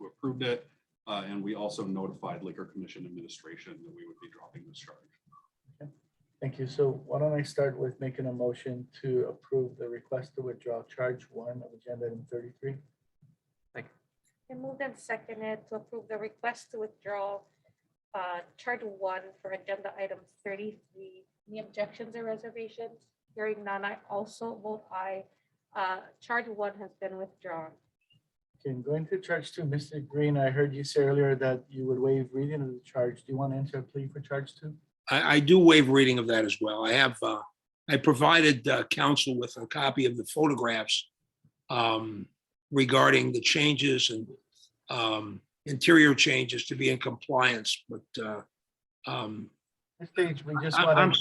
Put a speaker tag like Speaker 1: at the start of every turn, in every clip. Speaker 1: approved it. Uh, and we also notified Liquor Commission Administration that we would be dropping this charge.
Speaker 2: Thank you. So why don't I start with making a motion to approve the request to withdraw charge one of agenda item thirty-three?
Speaker 3: And moved and seconded to approve the request to withdraw uh, chart one for agenda item thirty-three. Any objections or reservations? Hearing none, I also vote aye. Uh, Chart one has been withdrawn.
Speaker 2: Okay, and going to charge two, Mr. Green, I heard you say earlier that you would waive reading of the charge. Do you want to enter a plea for charge two?
Speaker 4: I, I do waive reading of that as well. I have, uh, I provided, uh, council with a copy of the photographs um, regarding the changes and, um, interior changes to be in compliance, but, uh, um,
Speaker 2: At This stage, we just
Speaker 4: I- I'm-
Speaker 2: want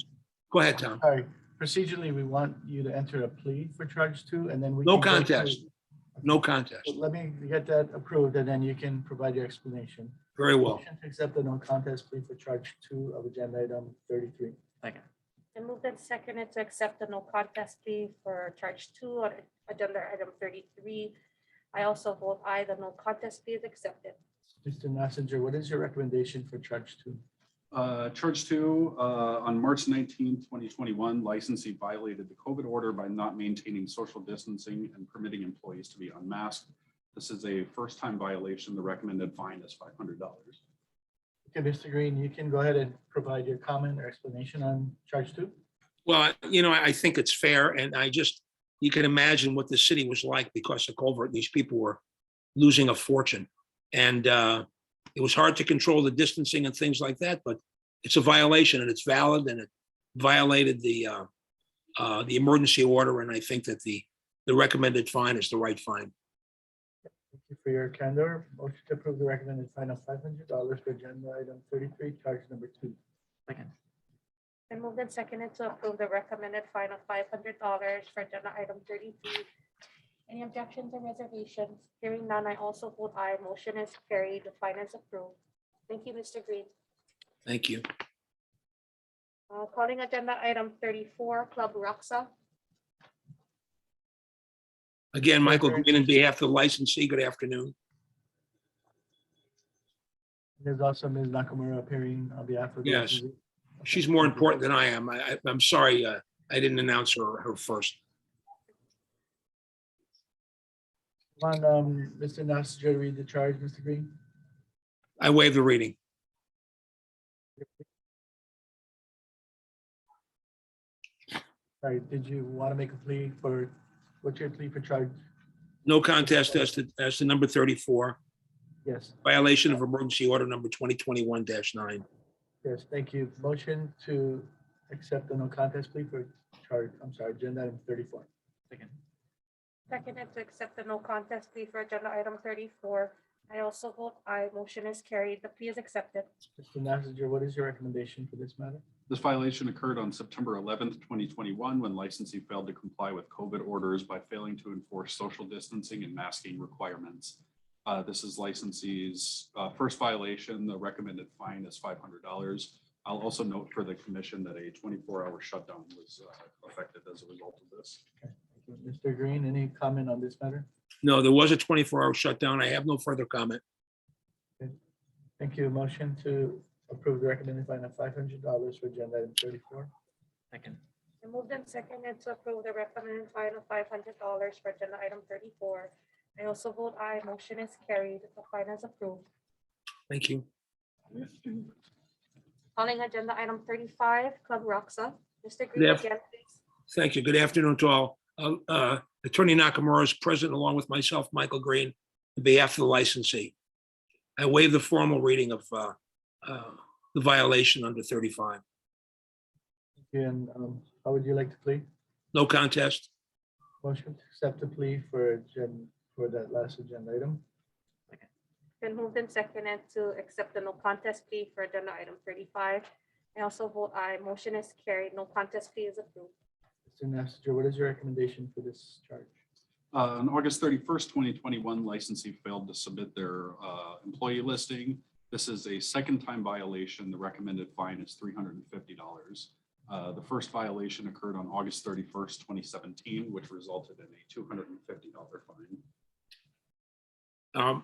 Speaker 4: go ahead,
Speaker 2: to,
Speaker 4: Tom.
Speaker 2: sorry, procedurally, we want you to enter a plea for charge two and then we.
Speaker 4: No
Speaker 2: can go through-
Speaker 4: contest. No contest.
Speaker 2: So Let me get that approved and then you can provide your explanation.
Speaker 4: Very well.
Speaker 2: Motion to accept the no contest plea for charge two of agenda item thirty-three.
Speaker 3: And moved and seconded to accept the no contest plea for charge two on agenda item thirty-three. I also vote aye, the no contest plea is accepted.
Speaker 2: Mr. Messenger, what is your recommendation for charge two?
Speaker 1: Uh, Charge two, uh, on March 19, 2021, licensee violated the COVID order by not maintaining social distancing and permitting employees to be unmasked. This is a first-time violation. The recommended fine is $500.
Speaker 2: Okay, Mr. Green, you can go ahead and provide your comment or explanation on charge two.
Speaker 4: Well, you know, I I think it's fair, and I just, you can imagine what the city was like because of culvert. These people were losing a fortune. And uh, it was hard to control the distancing and things like that, but it's a violation and it's valid and it violated the uh, uh, the emergency order, and I think that the the recommended fine is the right fine.
Speaker 2: Thank you for your candor. Motion to approve the recommended fine of five hundred dollars for agenda item thirty-three, charge number two.
Speaker 3: And moved and seconded to approve the recommended fine of five hundred dollars for agenda item thirty-three. Any objections or reservations? Hearing none, I also vote aye. Motion is carried. The fine is approved. Thank you, Mr. Green.
Speaker 4: Thank you.
Speaker 3: Uh, Calling agenda item thirty-four, Club Roxa.
Speaker 4: Again, Michael Green, on behalf of the licensee, good afternoon.
Speaker 2: There's also Ms. Nakamura appearing on behalf of. the
Speaker 4: Yes.
Speaker 2: SEC.
Speaker 4: She's more important than I am. I, I- I'm sorry, uh, I didn't announce her, her first.
Speaker 2: Come On, um, Mr. Nasser, read the charge, Mr. Green.
Speaker 4: I waive the reading.
Speaker 2: Sorry, did you want to make a plea for, what's your plea for charge?
Speaker 4: No contest as to, as to number 34,
Speaker 2: Yes,
Speaker 4: violation of emergency order number 2021-9.
Speaker 2: yes, thank you. Motion to accept the no contest plea for charge, I'm sorry, agenda item thirty-four.
Speaker 3: Seconded to accept the no contest plea for agenda item thirty-four. I also vote aye. Motion is carried. The plea is accepted.
Speaker 2: Mr. Nasser, what is your recommendation for this matter?
Speaker 1: This violation occurred on September 11, 2021, when licensee failed to comply with COVID orders by failing to enforce social distancing and masking requirements. Uh, This is licensee's uh, first violation. The recommended fine is $500. I'll also note for the commission that a 24-hour shutdown was uh, affected as a result of this.
Speaker 2: Mr. Green, any comment on this matter?
Speaker 4: No, there was a 24-hour shutdown. I have no further comment.
Speaker 2: Thank you. Motion to approve the recommended fine of five hundred dollars for agenda item thirty-four.
Speaker 5: Second,
Speaker 3: And moved and seconded to approve the recommended fine of five hundred dollars for agenda item thirty-four. I also vote aye. Motion is carried. The fine is approved.
Speaker 4: Thank you.
Speaker 3: Calling agenda item thirty-five, Club Roxa. Mr. Green
Speaker 4: Yep.
Speaker 3: again, please.
Speaker 4: Thank you. Good afternoon to all. Uh, uh, Attorney Nakamura is present along with myself, Michael Green, on behalf of the licensee. I waive the formal reading of uh, uh, the violation under 35.
Speaker 2: And um, how would you like to plead?
Speaker 4: No contest.
Speaker 2: Motion to accept the plea for agen- for that last agenda item.
Speaker 3: Been moved and seconded to accept the no contest plea for agenda item thirty-five. I also vote aye. Motion is carried. No contest plea is approved.
Speaker 2: Mr. Nasser, what is your recommendation for this charge?
Speaker 1: Uh, On August 31st, 2021, licensee failed to submit their uh, employee listing. This is a second time violation. The recommended fine is $350. Uh, The first violation occurred on August 31st, 2017, which resulted in a $250 fine.
Speaker 4: Um,